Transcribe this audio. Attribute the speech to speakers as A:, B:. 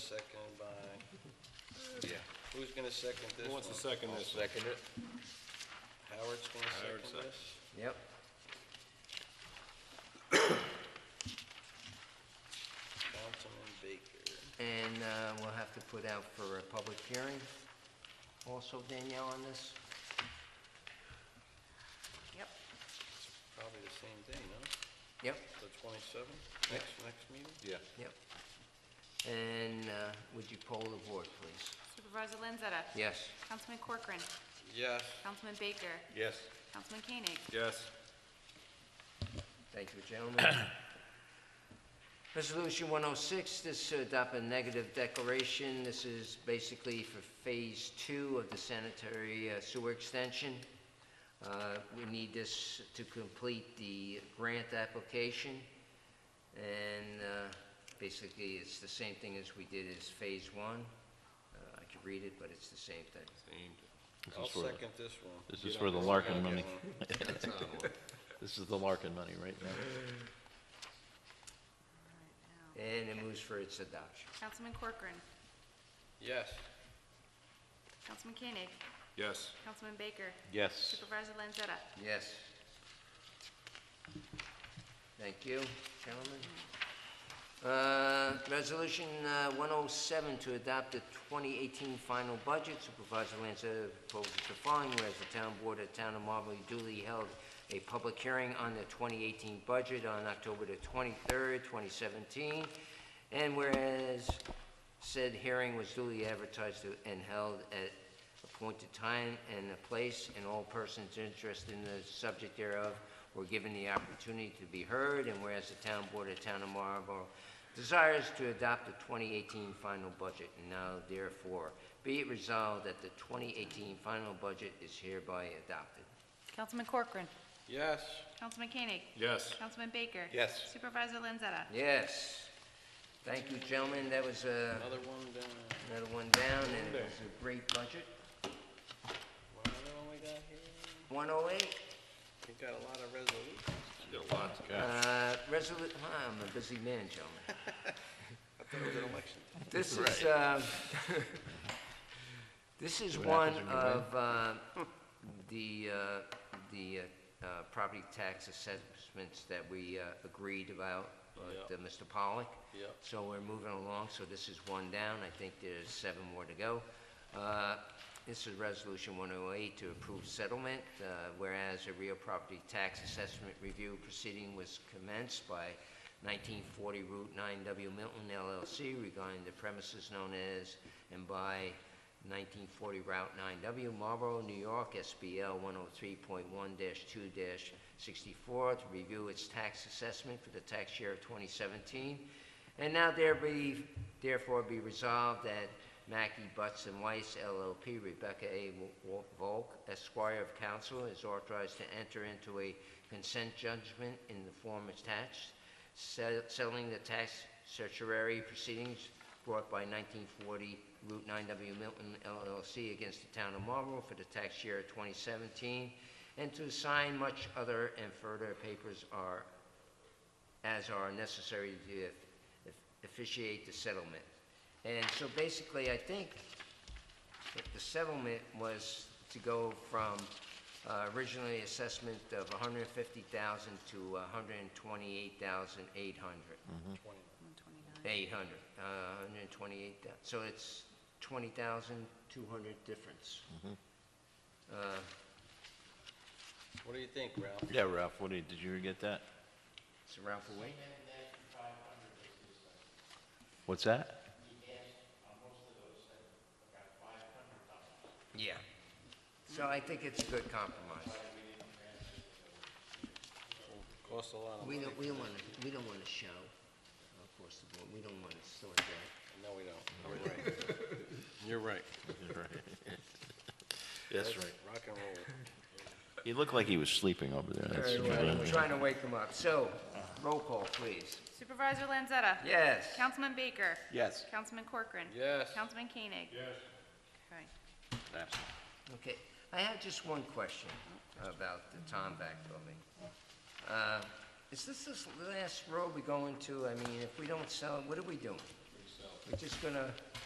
A: Yeah.
B: Who's gonna second this
C: Who wants to
B: one?
C: second
A: I'll
C: this?
A: second it.
B: Howard's gonna
C: Howard
B: second
C: second.
B: this?
A: Yep.
B: Councilman Baker.
A: And uh, we'll have to put out for a public hearing also, Danielle, on this?
D: Yep.
B: Probably the same day, no?
A: Yep,
B: The twenty-seventh, next, next meeting?
C: Yeah.
A: yep. And uh, would you poll the board, please?
D: Supervisor Lanzetta.
A: Yes.
D: Councilman Corcoran.
B: Yes.
D: Councilman Baker.
C: Yes.
D: Councilman Koenig.
C: Yes.
A: Thank you, gentlemen. Resolution 106, this to adopt a negative declaration. This is basically for Phase 2 of the sanitary uh, sewer extension. Uh, We need this to complete the grant application, and uh, basically, it's the same thing as we did as Phase 1. Uh, I could read it, but it's the same thing.
E: This
B: I'll
E: is for,
B: second this one.
E: this is for the Larkin money.
A: That's another one.
E: This is the Larkin money, right?
A: And it moves for its adoption.
D: Councilman Corcoran.
B: Yes.
D: Councilman Koenig.
C: Yes.
D: Councilman Baker.
E: Yes.
D: Supervisor Lanzetta.
A: Yes. Thank you, gentlemen. Uh, Resolution uh, 107 to adopt the 2018 final budget. Supervisor Lanza proposes the following, whereas the town board of Town of Marbury duly held a public hearing on the 2018 budget on October the 23rd, 2017, and whereas said hearing was duly advertised and held at appointed time and a place, and all persons interested in the subject thereof were given the opportunity to be heard, and whereas the town board of Town of Marlborough desires to adopt the 2018 final budget, and now therefore be it resolved that the 2018 final budget is hereby adopted.
D: Councilman Corcoran.
B: Yes.
D: Councilman Koenig.
C: Yes.
D: Councilman Baker.
C: Yes.
D: Supervisor Lanzetta.
A: Yes. Thank you, gentlemen, that was uh,
B: Another one down.
A: another one down, and it was a great budget.
B: What other one we got here?
A: 108?
B: We got a lot of resolutions.
C: Did a lot.
A: Uh, resolu, I'm a busy man, gentlemen.
B: I thought it was an election.
A: This is, uh, this is one of uh, the, uh, the uh, uh, property tax assessments that we uh, agreed about with uh, Mr. Pollock.
B: Yep.
A: So we're moving along, so this is one down, I think there's seven more to go. Uh, This is Resolution 108 to approve settlement, uh, whereas a real property tax assessment review proceeding was commenced by 1940 Route 9W Milton LLC regarding the premises known as and by 1940 Route 9W Marlboro, New York, SBL 103.1-2-64 to review its tax assessment for the tax year of 2017 and now there be, therefore be resolved that Mackey Butts and Weiss LLP, Rebecca A. Wo- Volk, Esquire of Counsel, is authorized to enter into a consent judgment in the form attached, se- settling the tax certiorari proceedings brought by 1940 Route 9W Milton LLC against the town of Marlborough for the tax year 2017, and to sign much other and further papers are as are necessary to eff- officiate the settlement. And so basically, I think that the settlement was to go from uh, originally assessment of 150,000 to 128,800. 800, uh, 128, so it's 20,200 difference. Uh,
B: What do you think, Ralph?
E: Yeah, Ralph, what did, did you get that?
A: It's around for weight?
E: What's that?
A: Yeah. So I think it's a good compromise.
B: Cost a lot of
A: We
B: money.
A: don't, we don't want to, we don't want to show, of course, the board, we don't want to sort that.
B: No, we don't. You're right. You're right.
E: That's right.
B: Rock and roll.
E: He looked like he was sleeping over there. That's-
A: I'm trying to wake them up. So, roll call, please.
D: Uh, Supervisor Lanzetta.
A: Yes.
D: Councilman Baker.
E: Yes.
D: Councilman Corcoran.
B: Yes.
D: Councilman Koenig. Yes. Okay.
A: Okay, I have just one question about the Tomback building. Uh, Is this this last road we go into? I mean, if we don't sell, it, what are we doing? We're just gonna...